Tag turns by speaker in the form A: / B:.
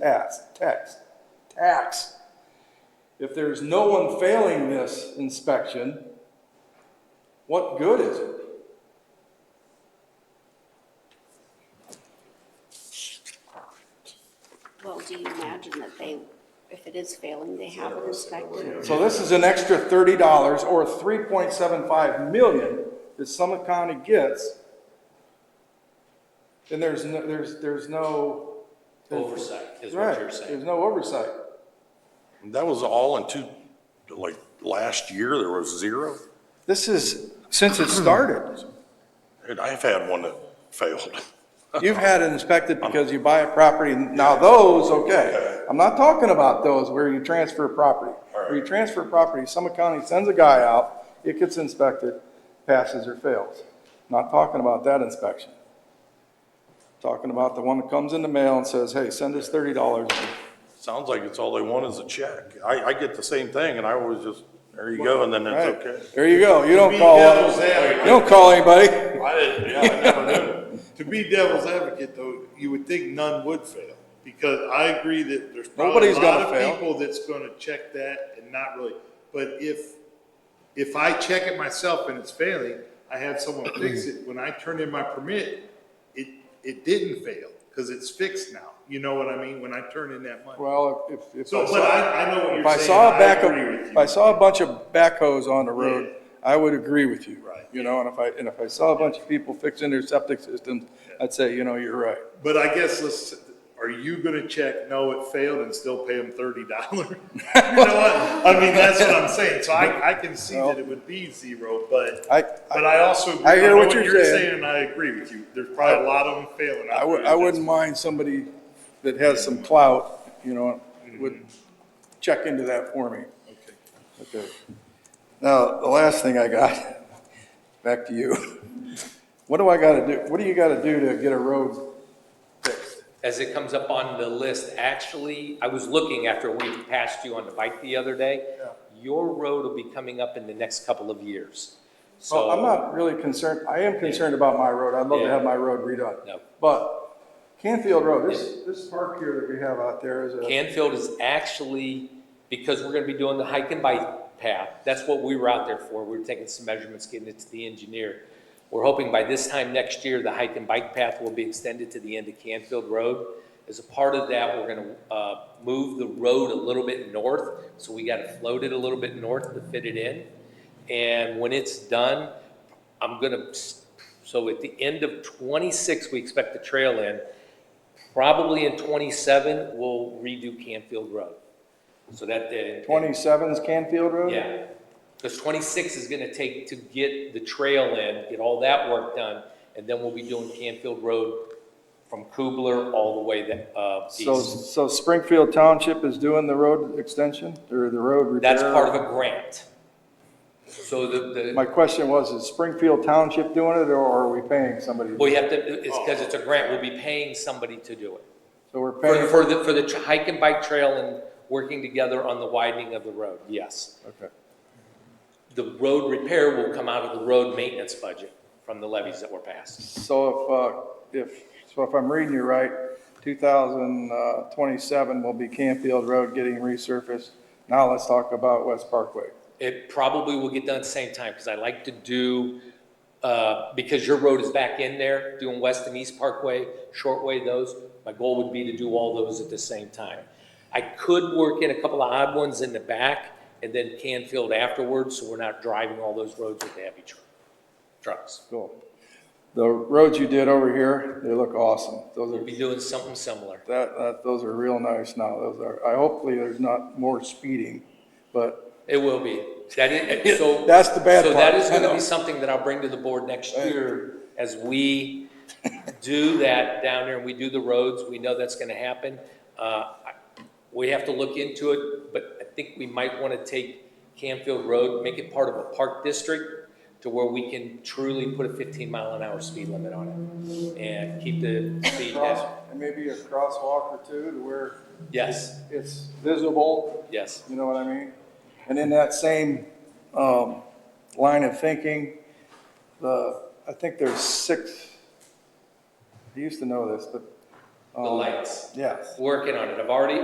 A: tax, tax, tax. If there's no one failing this inspection, what good is it?
B: Well, do you imagine that they, if it is failing, they have an inspector?
A: So this is an extra thirty dollars or three point seven five million that Summit County gets. And there's no, there's, there's no.
C: Oversight is what
A: Right,
C: you're saying.
A: there's no oversight.
D: That was all in two, like, last year, there was zero.
A: This is, since it started,
D: And I've had one that failed.
A: you've had it inspected because you buy a property, now those, okay. I'm not talking about those where you transfer property. Where you transfer property, Summit County sends a guy out, it gets inspected, passes or fails. Not talking about that inspection. Talking about the one that comes in the mail and says, hey, send us thirty dollars.
D: Sounds like it's all they want is a check. I, I get the same thing, and I always just, there you go, and then
A: Right,
D: it's okay.
A: there you go, you don't
E: be
A: call,
E: devil's
A: you
E: advocate.
A: don't call anybody.
E: I didn't, yeah, I never knew. To be devil's advocate, though, you would think none would fail, because I agree that there's probably a
A: Nobody's gonna
E: lot
A: fail.
E: of people that's gonna check that and not really, but if, if I check it myself and it's failing, I have someone fix it, when I turn in my permit, it, it didn't fail, cause it's fixed now, you know what I mean, when I turn in that money.
A: Well, if, if.
E: So, but I, I know what
A: If
E: you're
A: I
E: saying,
A: saw a
E: I
A: back
E: agree with
A: of,
E: you.
A: if I saw a bunch of backhoes on the road,
E: Yeah.
A: I would agree with you.
E: Right.
A: You know, and if I, and if I saw a bunch of people fixing their septic systems, I'd say, you know, you're right.
E: But I guess let's, are you gonna check, no, it failed and still pay them thirty dollars? You know what, I mean, that's what I'm saying, so I, I can see that it would be zero, but,
A: I,
E: but I also.
A: I hear
E: know
A: what you're saying.
E: And I agree with you, there's probably a lot of them failing. out
A: I would,
E: there.
A: I wouldn't mind somebody that has some clout, you know, would check into that for me.
E: Mm-hmm. Okay.
A: Okay. Now, the last thing I got, back to you. What do I gotta do, what do you gotta do to get a road fixed?
C: As it comes up on the list, actually, I was looking after we passed you on the bike the other day. Your road will be coming up in the next couple of years. So.
A: Well, I'm not really concerned, I am concerned about my road, I'd love to
C: Yeah.
A: have my road redone.
C: No.
A: But Canfield Road, this, this park here that we have out there is a,
C: Canfield is actually, because we're gonna be doing the hike and bike path, that's what we were out there for. We were taking some measurements, getting it to the engineer. We're hoping by this time next year, the hike and bike path will be extended to the end of Canfield Road. As a part of that, we're gonna, uh, move the road a little bit north, so we gotta float it a little bit north to fit it in. And when it's done, I'm gonna, s- so at the end of twenty-six, we expect the trail in. Probably in twenty-seven, we'll redo Canfield Road. So that, uh.
A: 27's Canfield Road?
C: Yeah, because twenty-six is gonna take to get the trail in, get all that work done, and then we'll be doing Canfield Road from Kubler all the way to, uh,
A: So,
C: east.
A: so Springfield Township is doing the road extension, or the road repair?
C: That's part of a grant. So the, the.
A: My question was, is Springfield Township doing it, or are we paying somebody?
C: Well, you have to, it's because it's a grant, we'll be paying somebody to do it.
A: So we're
C: For,
A: paying,
C: for the, for the tr- hike and bike trail and working together on the widening of the road, yes.
A: okay,
C: The road repair will come out of the road maintenance budget from the levies that were passed.
A: so if, uh, if, so if I'm reading you right, two thousand uh, twenty-seven will be Canfield Road getting resurfaced. Now let's talk about West Parkway.
C: It probably will get done at the same time, because I like to do, uh, because your road is back in there, doing West and East Parkway, Shortway, those. My goal would be to do all those at the same time. I could work in a couple of odd ones in the back, and then Canfield afterwards, so we're not driving all those roads with the heavy tr- trucks.
A: Cool. The roads you did over here, they look awesome. Those
C: We'll
A: are,
C: be doing something similar.
A: that, that, those are real nice now. Those are, I, hopefully there's not more speeding, but
C: It will be. That is, so.
A: That's the bad
C: So that
A: part.
C: is
A: I
C: gonna
A: know.
C: be something that I'll bring to the board next year as we do that down there and we do the roads. We know that's gonna happen. Uh, I- We have to look into it, but I think we might wanna take Canfield Road, make it part of a park district to where we can truly put a fifteen mile an hour speed limit on it and keep the speed
A: cross,
C: down.
A: and maybe a crosswalk or two to where
C: Yes,
A: it's visible
C: yes.
A: You know what I mean? And in that same um, line of thinking, the, I think there's six, I used to know this, but
C: the lights.
A: yes.
C: Working on it. I've already